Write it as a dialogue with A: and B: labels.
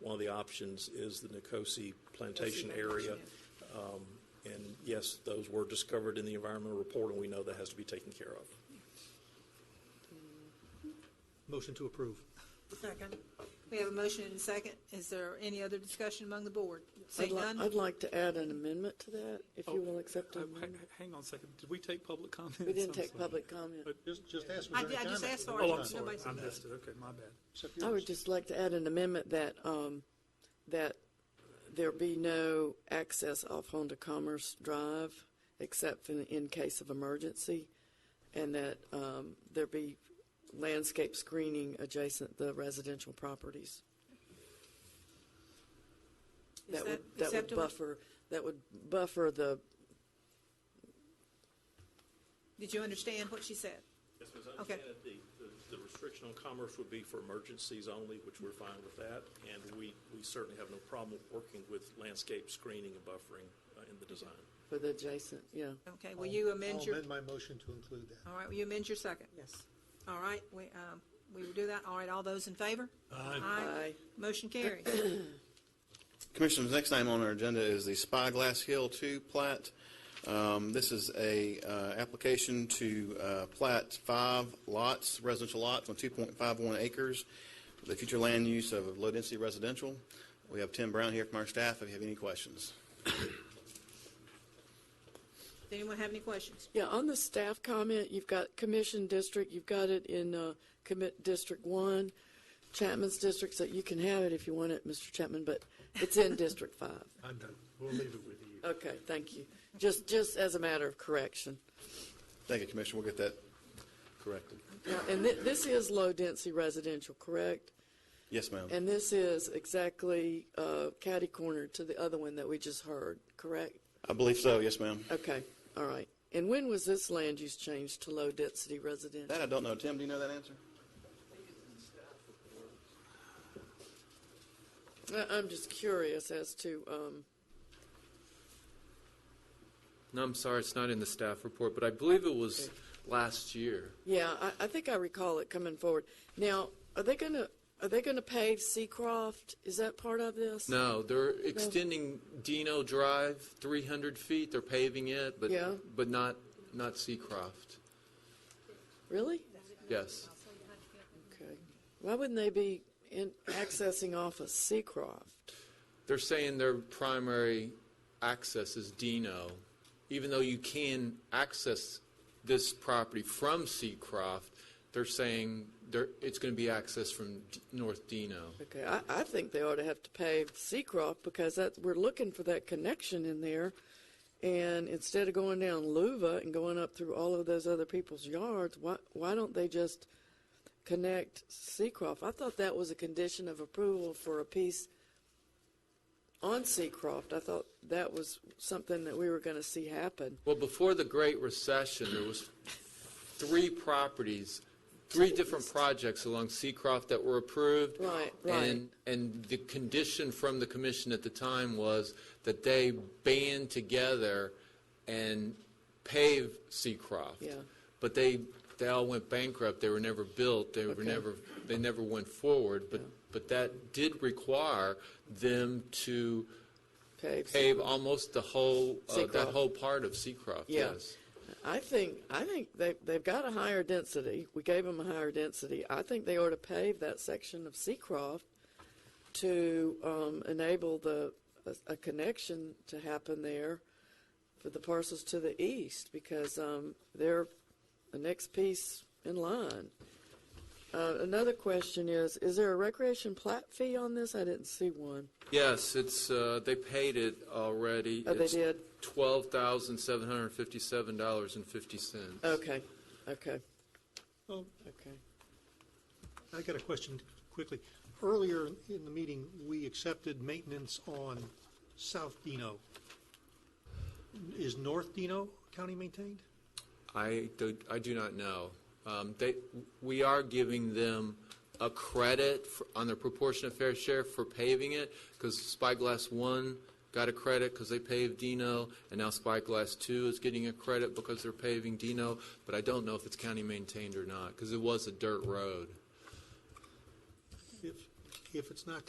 A: one of the options is the Nicosi plantation area. Um, And yes, those were discovered in the environmental report, and we know that has to be taken care of.
B: Motion to approve.
C: Second. We have a motion and a second. Is there any other discussion among the board?
D: I'd
C: Seeing
D: li-
C: none?
D: I'd like to add an amendment to that, if you will accept
B: Uh,
D: an
B: ha-
D: amendment.
B: Hang on a second. Did we take public comment?
D: We didn't take public comment.
B: But
E: Just, just ask was there
C: I did- I
E: any
C: just
E: comment?
C: asked for it.
B: Oh, I'm
C: Nobody
B: sorry.
C: said
B: I
C: that.
B: missed it. Okay, my bad.
E: Except
D: I
E: yours.
D: would just like to add an amendment that, um, that there be no access off Honda Commerce Drive except in, in case of emergency, and that, um, there be landscape screening adjacent the residential properties.
C: Is
D: That
C: that
D: would, that would
C: acceptable?
D: buffer, that would buffer the,
C: Did you understand what she said?
A: Yes, Ms.
C: Okay.
A: understand that the, the- the restriction on commerce would be for emergencies only, which we're fine with that. And we, we certainly have no problem working with landscape screening and buffering uh, in the design.
D: for the adjacent, yeah.
C: Okay, will you amend
E: I'll
C: your,
E: amend my motion to include that.
C: all right, will you amend your second?
D: Yes.
C: All right, we, um, we will do that. All right, all those in favor? Aye.
D: Aye.
C: Motion carries.
F: Commissioners, next item on our agenda is the Spyglass Hill 2 plat. Um, This is a uh, application to uh, plat five lots, residential lots on 2.51 acres, for the future land use of low-density residential. We have Tim Brown here from our staff if you have any questions.
C: Does anyone have any questions?
D: Yeah, on the staff comment, you've got commission district, you've got it in uh, commit District One, Chapman's district, so you can have it if you want it, Mr. Chapman, but it's in District Five.
B: I'm done. We'll leave it with you.
D: Okay, thank you. Just, just as a matter of correction.
F: Thank you, Commissioner. We'll get that corrected.
D: Now, And thi- this is low-density residential, correct?
F: Yes, ma'am.
D: And this is exactly uh, catty-corner to the other one that we just heard, correct?
F: I believe so, yes, ma'am.
D: Okay, all right. And when was this land use changed to low-density residential?
F: That I don't know. Tim, do you know that answer?
D: I- I'm just curious as to, um,
G: No, I'm sorry, it's not in the staff report, but I believe it was last year.
D: Yeah, I, I think I recall it coming forward. Now, are they gonna, are they gonna pave Seacroft? Is that part of this?
G: No, they're extending Dino Drive 300 feet, they're paving it, but,
D: Yeah.
G: but not, not Seacroft.
D: Really?
G: Yes.
D: Okay. Why wouldn't they be in, accessing off of Seacroft?
G: They're saying their primary access is Dino, even though you can access this property from Seacroft, they're saying there, it's going to be accessed from D- North Dino.
D: Okay, I, I think they ought to have to pave Seacroft because that's, we're looking for that connection in there. And instead of going down Luva and going up through all of those other people's yards, why, why don't they just connect Seacroft? I thought that was a condition of approval for a piece on Seacroft. I thought that was something that we were gonna see happen.
G: Well, before the Great Recession, there was three properties, three different projects along Seacroft that were approved.
D: Right, right.
G: And, and the condition from the commission at the time was that they band together and pave Seacroft.
D: Yeah.
G: But they, they all went bankrupt, they were never built, they were
D: Okay.
G: never, they never went forward. But, but that did require them to
D: Pave.
G: pave almost the whole, uh, that
D: Seacroft.
G: whole part of Seacroft,
D: Yeah.
G: yes.
D: I think I think they they've got a higher density. We gave them a higher density. I think they ought to pave that section of Seacroft to um, enable the a, a connection to happen there for the parcels to the east because um, they're the next piece in line. Uh, another question is: Is there a recreation plat fee on this? I didn't see one.
G: Yes, it's, uh, they paid it already.
D: Oh, they
G: It's
D: did?
G: $12,757.50.
D: Okay, okay,
B: Um,
D: okay.
B: I got a question quickly. Earlier in the meeting, we accepted maintenance on South Dino. Is North Dino County maintained?
G: I do, I do not know. Um, They, we are giving them a credit for- on their proportionate fair share for paving it, because Spyglass One got a credit because they paved Dino, and now Spyglass Two is getting a credit because they're paving Dino, but I don't know if it's county maintained or not, because it was a dirt road.
B: If, if it's not